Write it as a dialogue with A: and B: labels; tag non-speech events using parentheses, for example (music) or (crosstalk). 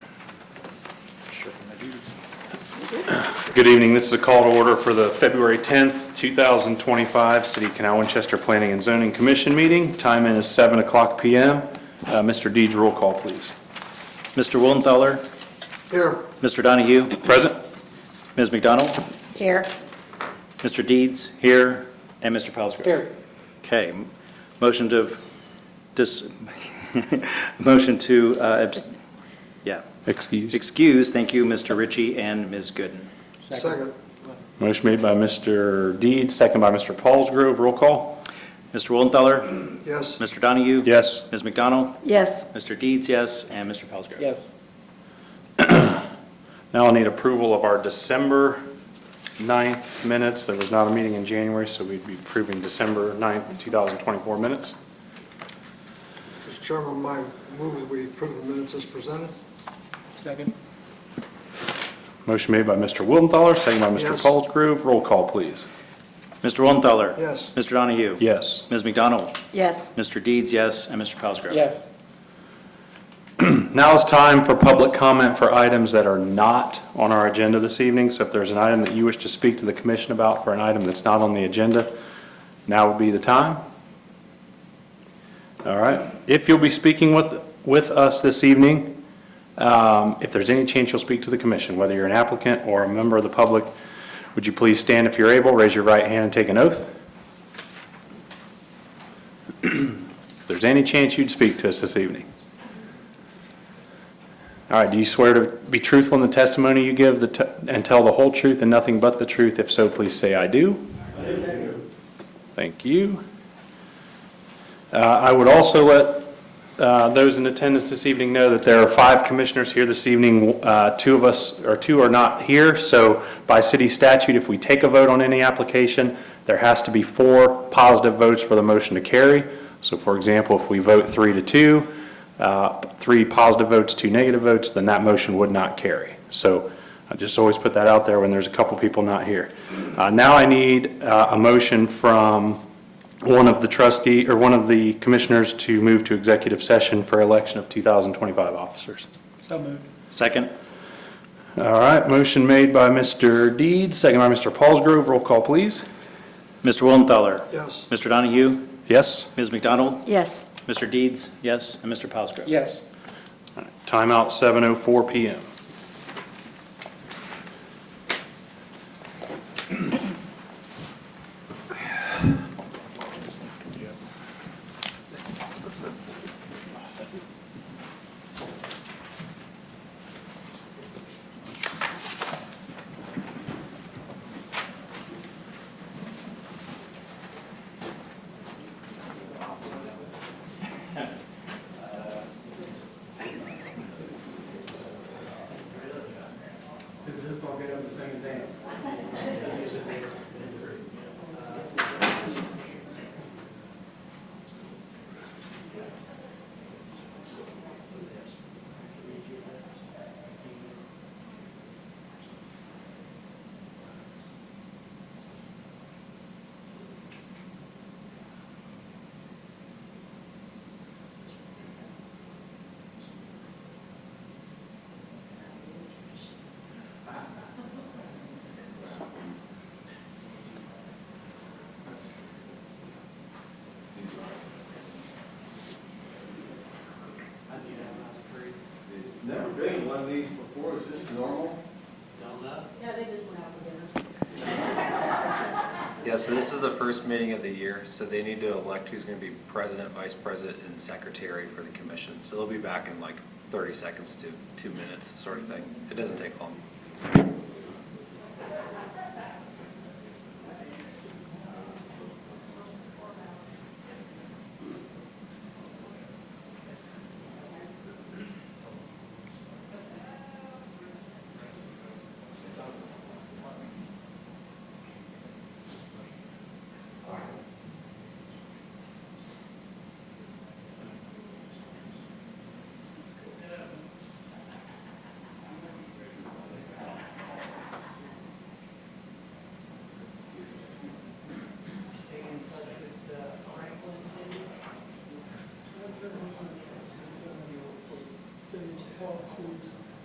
A: Good evening. This is a call to order for the February 10th, 2025 City of Canal Winchester Planning and Zoning Commission meeting. Time in is 7 o'clock PM. Uh, Mr. Deeds, roll call, please.
B: Mr. Willenthaler?
C: Here.
B: Mr. Donahue?
A: Present?
B: Ms. McDonald?
D: Here.
B: Mr. Deeds? Here. And Mr. Pelsgrove?
C: Here.
B: Okay. Motion to, dis, (laughs) motion to, uh, abs- yeah,
A: Excuse.
B: excuse, thank you, Mr. Ritchie and Ms. Gooden.
C: Second.
A: Motion made by Mr. Deeds, second by Mr. Paulsgrove. Roll call?
B: Mr. Willenthaler?
C: Yes.
B: Mr. Donahue?
A: Yes.
B: Ms. McDonald?
D: Yes.
B: Mr. Deeds, yes, and Mr. Pelsgrove?
C: Yes.
A: Now I'll need approval of our December 9th minutes. There was not a meeting in January, so we'd be approving December 9th, 2024 minutes.
C: Mr. Chairman, my move that we approve the minutes as presented.
E: Second?
A: Motion made by Mr. Willenthaler, second by Mr.
C: Yes.
A: Paulsgrove. Roll call, please.
B: Mr. Willenthaler?
C: Yes.
B: Mr. Donahue?
A: Yes.
B: Ms. McDonald?
D: Yes.
B: Mr. Deeds, yes, and Mr. Pelsgrove?
E: Yes.
A: Now is time for public comment for items that are not on our agenda this evening. So if there's an item that you wish to speak to the commission about for an item that's not on the agenda, now would be the time. All right. If you'll be speaking with, with us this evening, um, if there's any chance you'll speak to the commission, whether you're an applicant or a member of the public, would you please stand if you're able, raise your right hand and take an oath? (clears throat) If there's any chance you'd speak to us this evening. All right, do you swear to be truthful in the testimony you give the te- and tell the whole truth and nothing but the truth? If so, please say, "I do." I do. Thank you. Uh, I would also let uh, those in attendance this evening know that there are five commissioners here this evening. Uh, Two of us, or two are not here, so by city statute, if we take a vote on any application, there has to be four positive votes for the motion to carry. So for example, if we vote three to two, uh, three positive votes, two negative votes, then that motion would not carry. So I just always put that out there when there's a couple people not here. Uh, Now I need uh, a motion from one of the trustee, or one of the commissioners to move to executive session for election of 2025 officers.
E: So moved.
B: Second?
A: All right, motion made by Mr. Deeds, second by Mr. Paulsgrove. Roll call, please.
B: Mr. Willenthaler?
C: Yes.
B: Mr. Donahue?
A: Yes?
B: Ms. McDonald?
D: Yes.
B: Mr. Deeds, yes, and Mr. Pelsgrove?
E: Yes.
A: Timeout 7:04 PM.
F: Never been in one of these before, is this normal?
G: Yeah, so this is the first meeting of the year, so they need to elect who's going to be president, vice president, and secretary for the commission. So they'll be back in like 30 seconds to two minutes, sort of thing. It doesn't take long.